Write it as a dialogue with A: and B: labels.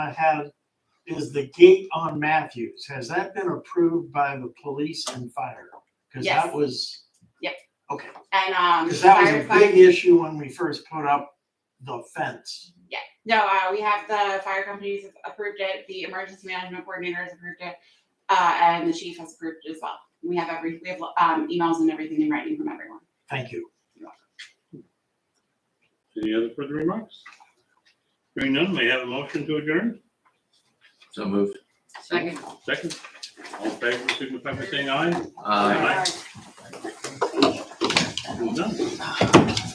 A: I had is the gate on Matthews. Has that been approved by the police and fire? Because
B: Yes.
A: that was,
B: And um,
A: because that was a big
B: firefighter,
A: issue when we first put up the fence.
B: no, uh, we have the fire companies have approved it, the emergency management coordinator has approved it, uh, and the chief has approved it as well. We have every, we have um, emails and everything in writing from everyone.
A: Thank you.
C: Any other further remarks? Hearing none, may I have a motion to adjourn?
D: So moved.
B: Second.
C: Second, all in favor,
D: Uh,
C: signify by saying aye.
D: Aye.
C: Done.